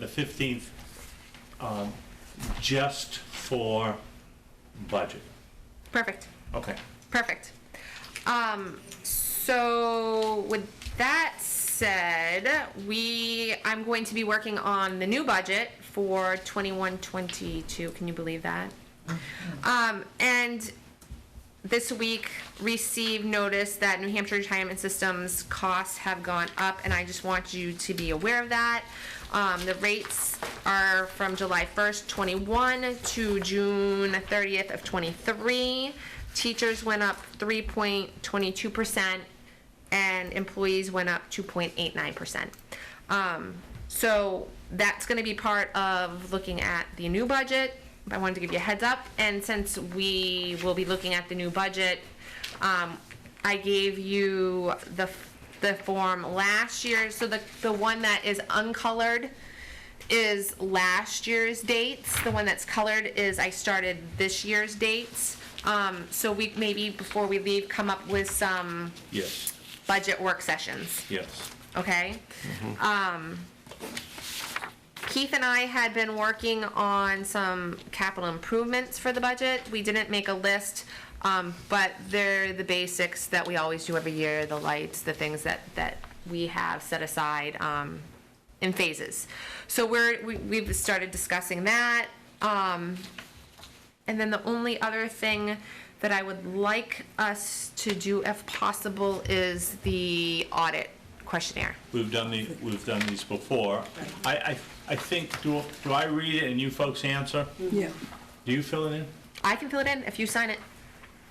the 15th, um, just for budget. Perfect. Okay. Perfect. Um, so with that said, we I'm going to be working on the new budget for 21-22. Can you believe that? Um, and this week received notice that New Hampshire Retirement System's costs have gone up, and I just want you to be aware of that. Um, the rates are from July 1st, 21 to June 30th of 23. Teachers went up 3.22%, and employees went up 2.89%. Um, so that's going to be part of looking at the new budget. I wanted to give you a heads up. And since we will be looking at the new budget, um, I gave you the, the form last year. So the, the one that is uncolored is last year's dates. The one that's colored is I started this year's dates. Um, so we, maybe before we leave, come up with some Yes, budget work sessions yes. okay? Um, Keith and I had been working on some capital improvements for the budget. We didn't make a list, um, but they're the basics that we always do every year, the lights, the things that, that we have set aside, um, in phases. So we're, we, we've started discussing that. Um, and then the only other thing that I would like us to do if possible is the audit questionnaire. We've done the, we've done these before. I, I, I think, do, do I read it and you folks answer? Yeah, Do you fill it in? I can fill it in if you sign it.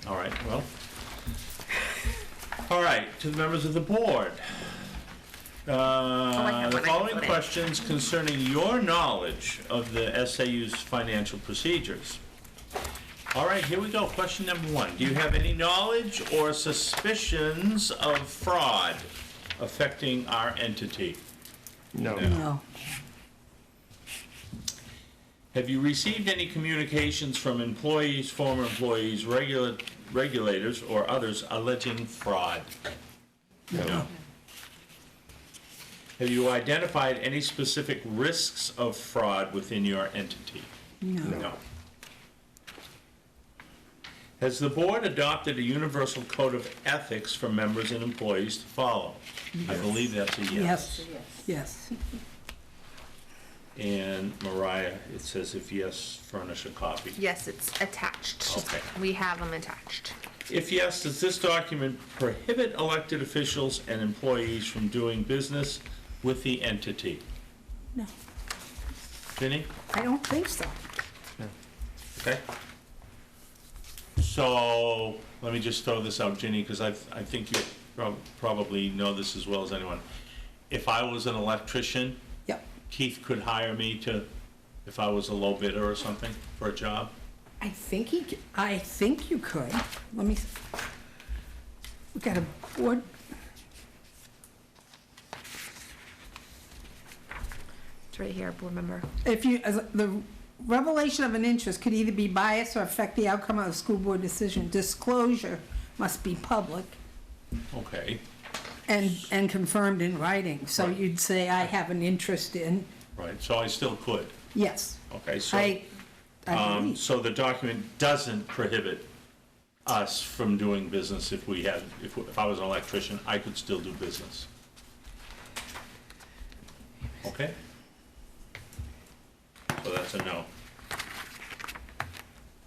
All right, well. All right, to the members of the board. Uh, The have one I can Uh, following put in. questions concerning your knowledge of the SAU's financial procedures. All right, here we go, question number one. Do you have any knowledge or suspicions of fraud affecting our entity? No. no, Have you received any communications from employees, former employees, regula- regulators, or others alleging fraud? No. Have you identified any specific risks of fraud within your entity? no, No. Has the board adopted a universal code of ethics for members and employees to follow? I believe that's a yes, yes, And Mariah, it says if yes, furnish a copy. Yes, it's attached. Okay. We have them attached. If yes, does this document prohibit elected officials and employees from doing business with the entity? no. Vinnie? I don't think so. Okay. So, let me just throw this out, Ginny, because I, I think you prob- probably know this as well as anyone. If I was an electrician, Yep. Keith could hire me to, if I was a low bidder or something for a job? I think he, c- I think you could. Let me, s- we got a board, It's right here, board member. if you, as the revelation of an interest could either be biased or affect the outcome of a school board decision. Disclosure must be public Okay, and, and confirmed in writing. So Right. you'd say, I have an interest in, right, so I still could, yes. okay, so. I, I Um, believe, so the document doesn't prohibit us from doing business if we had, if, if I was an electrician, I could still do business. Okay? So that's a no.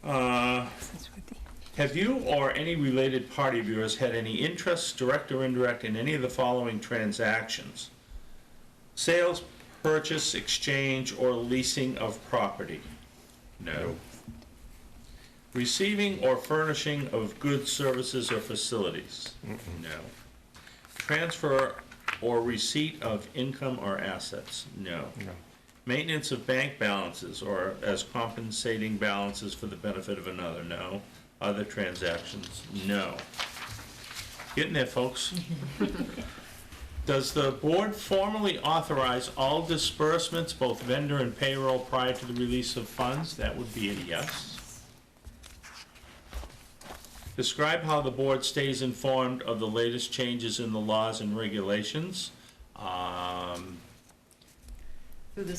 Uh, that's what they- have you or any related party of yours had any interests, direct or indirect, in any of the following transactions? Sales, purchase, exchange, or leasing of property? No. Receiving or furnishing of goods, services, or facilities? No. Transfer or receipt of income or assets? No. Maintenance of bank balances or as compensating balances for the benefit of another, no. Other transactions, no. Getting there, folks. Does the board formally authorize all disbursements, both vendor and payroll, prior to the release of funds? That would be a yes. Describe how the board stays informed of the latest changes in the laws and regulations. Um,